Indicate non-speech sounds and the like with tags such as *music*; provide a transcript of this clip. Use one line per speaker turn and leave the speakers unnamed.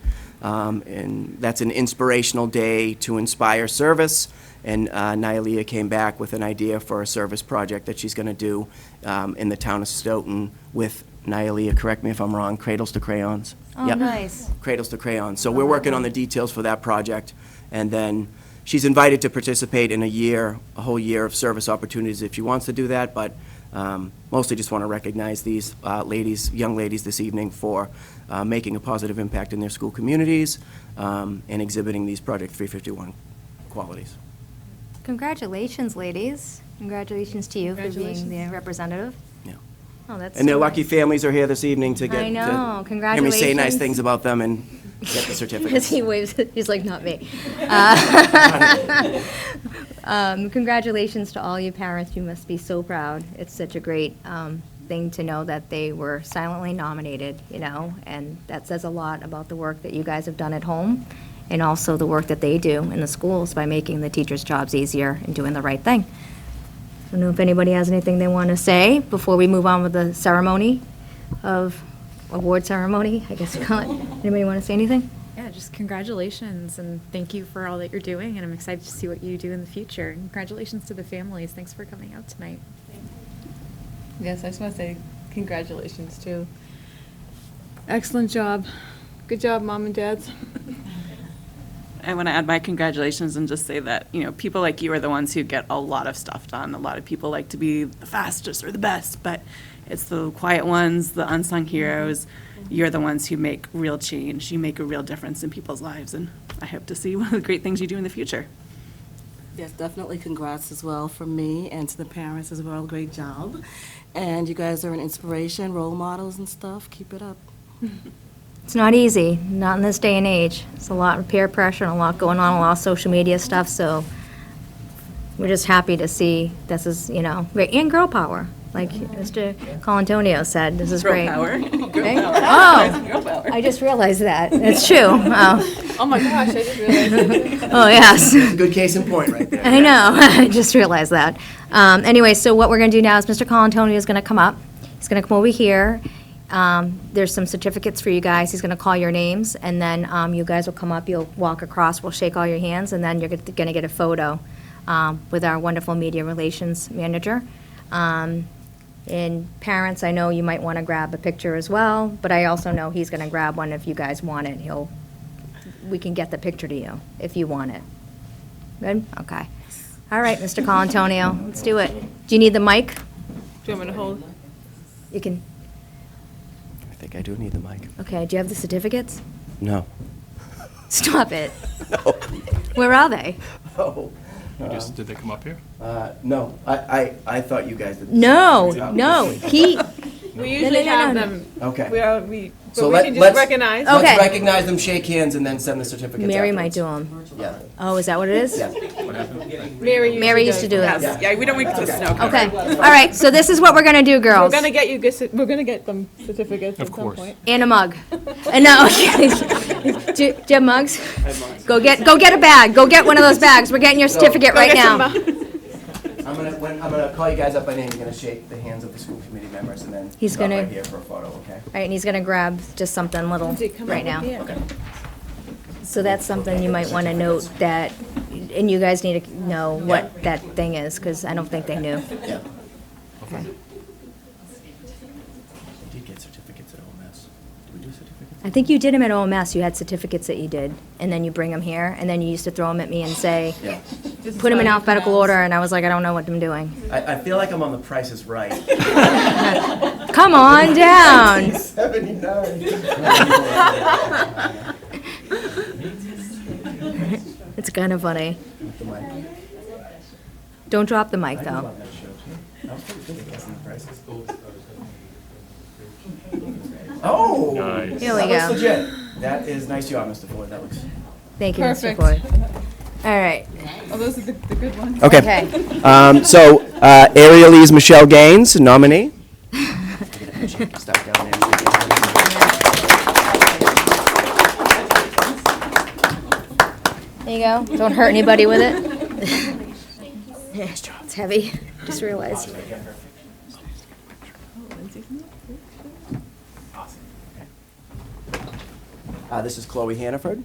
Um, And that's an inspirational day to inspire service. And uh, Nylea came back with an idea for a service project that she's going to do um, in the town of Stoughton with Nylea, correct me if I'm wrong, Cradles to Crayons.
Oh,
Yep.
nice.
Cradles to Crayons. So
Oh,
we're working on the details for that project. And then she's invited to participate in a year, a whole year of service opportunities if she wants to do that. But um, mostly just want to recognize these uh, ladies, young ladies this evening for uh, making a positive impact in their school communities um, and exhibiting these Project 351 qualities.
Congratulations, ladies. Congratulations to you for being the
Congratulations.
representative.
Yeah.
Oh, that's.
And their
so
lucky
nice.
families are here this evening to get.
I
to
know.
Hear me say nice
Congratulations.
things about them and get the
*laughs* As
certificates.
he waves, he's like, not me. Uh, *laughs* um, Congratulations to all you parents, you must be so proud. It's such a great um, thing to know that they were silently nominated, you know, and that says a lot about the work that you guys have done at home, and also the work that they do in the schools by making the teachers' jobs easier and doing the right thing. I don't know if anybody has anything they want to say before we move on with the ceremony of, award ceremony, I guess you call it. Anybody want to say anything?
Yeah, just congratulations and thank you for all that you're doing. And I'm excited to see what you do in the future. And Congratulations to the families. Thanks for coming out tonight.
Yes, I just want to say congratulations too. Excellent job. Good job, mom and dads.
*laughs*
I want to add my congratulations and just say that, you know, people like you are the ones who get a lot of stuff done. A lot of people like to be the fastest or the best, but it's the quiet ones, the unsung heroes. You're the ones who make real change. You make a real difference in people's lives, and I hope to see *laughs* one of the great things you do in the future.
Yes, definitely congrats as well from me and to the parents as well. Great job. And you guys are an inspiration, role models and stuff. Keep it up.
It's not easy, not in this day and age. It's a lot of peer pressure and a lot going on, a lot of social media stuff, so we're just happy to see this is, you know, great. and girl power, like Mr. Colantonio said, this is
Girl
great.
power.
Okay?
*laughs*
Oh, I just realized that, it's true. Oh,
Oh my gosh, I didn't realize.
*laughs* oh, yes.
Good case in point right there.
I know. *laughs* I just realized that. Um, anyway, so what we're going to do now is Mr. Colantonio is going to come up. He's going to come over here. Um, there's some certificates for you guys. He's going to call your names, and then um, you guys will come up. You'll walk across. We'll shake all your hands, and then you're going to get a photo um, with our wonderful media relations manager. Um, and parents, I know you might want to grab a picture as well, but I also know he's going to grab one if you guys want it. He'll, we can get the picture to you if you want it. Good? Okay. All right, Mr. Colantonio, let's do it. Do you need the mic?
Do you want me to hold?
You can,
I think I do need the mic.
okay, do you have the certificates?
No.
Stop it.
*laughs* No.
Where are they?
Oh.
You just, did they come up here?
Uh, No, I, I, I thought you guys did.
No, no, he,
We
no,
usually
no,
have
no.
them.
Okay.
We are, we,
So
but we
let-
can just
let's-
recognize.
Oh. Okay.
Let's recognize them, shake hands, and then send the certificates
Mary might
afterwards.
do them.
Yeah,
Oh, is that what it is?
yeah.
Mary usually
Mary used to do
that.
this.
Yeah, we don't make the snow.
Okay, all right, so this is what we're gonna do,
We're
girls.
gonna get you, gus- we're gonna get them certificates at
Of
some
course.
point.
And a mug. Uh, No, *laughs* okay. Do do you have mugs? Go get, go get a bag, go get one of those bags, we're getting your certificate right now.
I'm gonna, when, I'm gonna call you guys up by name, I'm gonna shake the hands of the school committee members, and then
He's
stop
gonna-
right here for a photo, okay?
All right, and he's gonna grab just something little
Did it come
right
up?
now.
Yeah.
So that's something you might want to note that, and you guys need to know what that thing is, because I don't think they knew.
Yeah. Did get certificates at OMS. Did we do certificates?
I think you did them at OMS, you had certificates that you did, and then you bring them here, and then you used to throw them at me and say,
Yeah.
This is
put them in
fine.
alphabetical order, and I was like, I don't know what I'm doing.
I, I feel like I'm on The Price is
*laughs*
Right.
Come on down.
Seventy-nine.
*laughs* It's kind of funny.
The mic.
Don't drop the mic,
I
though.
love that show, too. That was pretty good, it was in The Price is- Oh!
Nice.
Here
That
we
looks
go.
legit. That is nice job, Mr. Ford, that looks.
Thank you, Mr.
Perfect.
Ford. All
*laughs*
right,
Oh, those are the, the good ones.
okay.
Um, so, uh, Ariel is Michelle Gaines,
*laughs*
nominee.
There you go. Don't hurt anybody with it.
*laughs*
*laughs* It's heavy, just realized.
Uh, This is Chloe Hannaford.